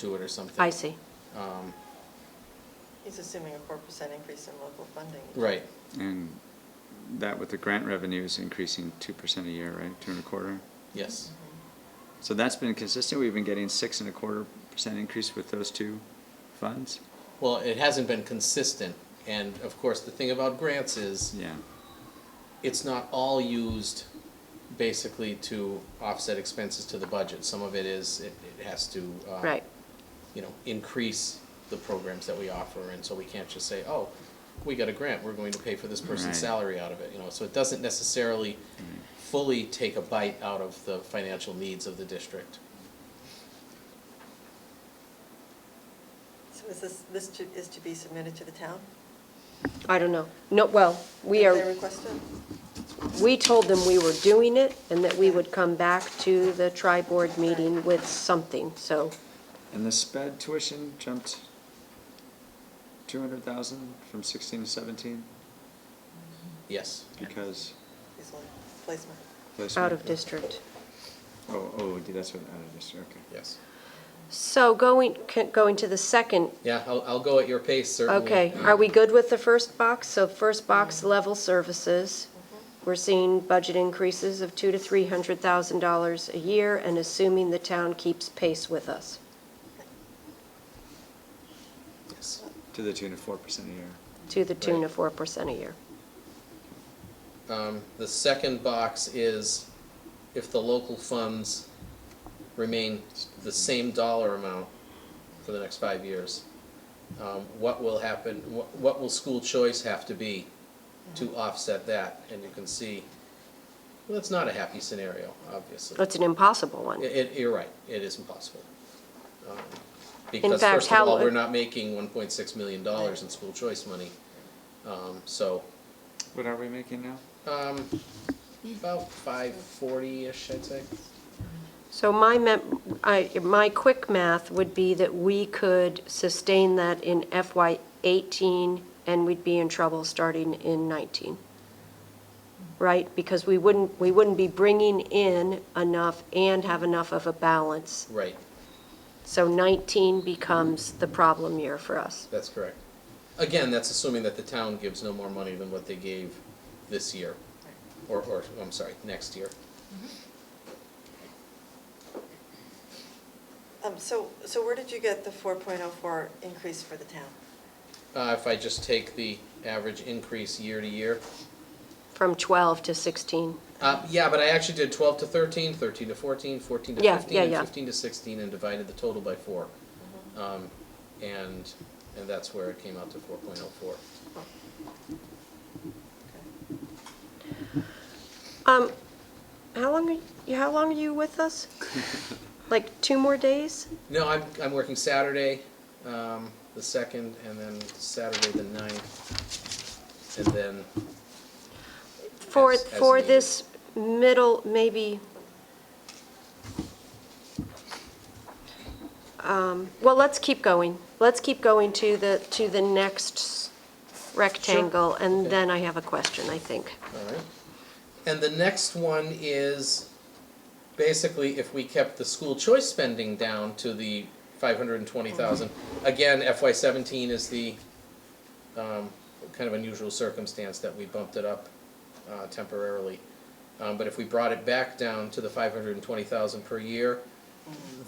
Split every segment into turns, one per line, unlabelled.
to it or something.
I see.
Um,
He's assuming a four percent increase in local funding.
Right,
And that with the grant revenues increasing two percent a year, right, two and a quarter?
yes,
So that's been consistent, we've been getting six and a quarter percent increase with those two funds?
well, it hasn't been consistent, and of course, the thing about grants is,
Yeah,
it's not all used basically to offset expenses to the budget. Some of it is, it, it has to, uh,
Right.
you know, increase the programs that we offer, and so we can't just say, oh, we got a grant, we're going to pay for this person's
Right. Mm-hmm.
salary out of it, you know, so it doesn't necessarily fully take a bite out of the financial needs of the district.
So is this, this to- is to be submitted to the town?
I don't know. No, well, we
If
are,
They requested?
we told them we were doing it and that we would come back to the tri-board meeting with something, so,
and the sped tuition jumped two hundred thousand from sixteen to seventeen
Yes,
because.
He's one, placement.
out of
placement-
district.
Oh, oh, that's what, out of district, okay.
yes.
So going, c- going to the second,
Yeah, I'll, I'll go at your pace, certainly.
okay, are we good with the first box? So first box, level services.
Mm-hmm.
We're seeing budget increases of two to three hundred thousand dollars a year and assuming the town keeps pace with us.
Yes.
To the tune of four percent a year.
to the tune
Right.
of four percent a year.
Um, the second box is if the local funds remain the same dollar amount for the next five years, um, what will happen, what, what will school choice have to be to
Mm-hmm.
offset that? And you can see, well, it's not a happy scenario, obviously.
That's an impossible one.
It, it- you're right, it is impossible. Um, Because
fact,
first
how-
of all, we're not making one point six million dollars in school choice money. Um, so,
What are we making now?
um, about five forty-ish, I'd say.
So my, mem- I, my quick math would be that we could sustain that in FY eighteen, and we'd be in trouble starting in nineteen. Right? Because we wouldn't, we wouldn't be bringing in enough and have enough of a balance.
Right,
So nineteen becomes the problem year for us.
that's correct. Again, that's assuming that the town gives no more money than what they gave this year, or, or, I'm sorry, next year.
Um, so, so where did you get the four point oh four increase for the town?
Uh, if I just take the average increase year to year,
From twelve to sixteen,
Uh, yeah, but I actually did twelve to 13, 13 to 14, 14 to
Yeah,
fifteen,
yeah,
and
yeah.
fifteen to sixteen, and divided the total by four. Um, and, and that's where it came out to four point oh four.
Um, how long, are you- how long are you with us? Like two more days?
No, I'm, I'm working Saturday, um, the second, and then Saturday the ninth, and then,
For,
As- as
for
needed.
this middle, maybe, um, well, let's keep going. Let's keep going to the, to the next rectangle, and
Okay.
then I have a question, I think.
all right? And the next one is basically if we kept the school choice spending down to the five hundred and twenty thousand. Again, FY seventeen is the, um, kind of unusual circumstance that we bumped it up, uh, temporarily. Um, but if we brought it back down to the five hundred and twenty thousand per year,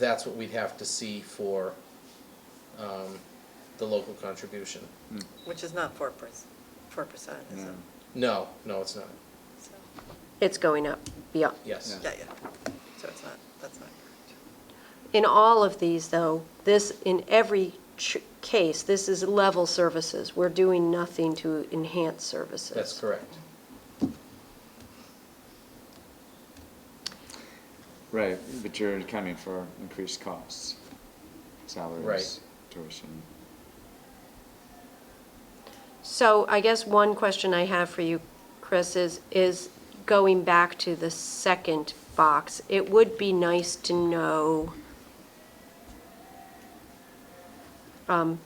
that's what we'd have to see for, um, the local contribution.
Which is not four percent, four percent, is it?
No.
No, no, it's not,
So,
It's going up, beyond.
yes.
Yeah, yeah. So it's not, that's not correct.
In all of these, though, this, in every ch- case, this is level services. We're doing nothing to enhance services.
That's correct.
Right, but you're accounting for increased costs, salaries, tuition.
So I guess one question I have for you, Chris, is, is going back to the second box, it would be nice to know um,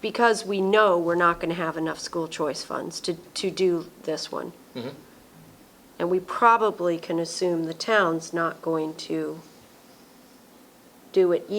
because we know we're not going to have enough school choice funds to, to do this one.
Mhm.
And we probably can assume the town's not going to do it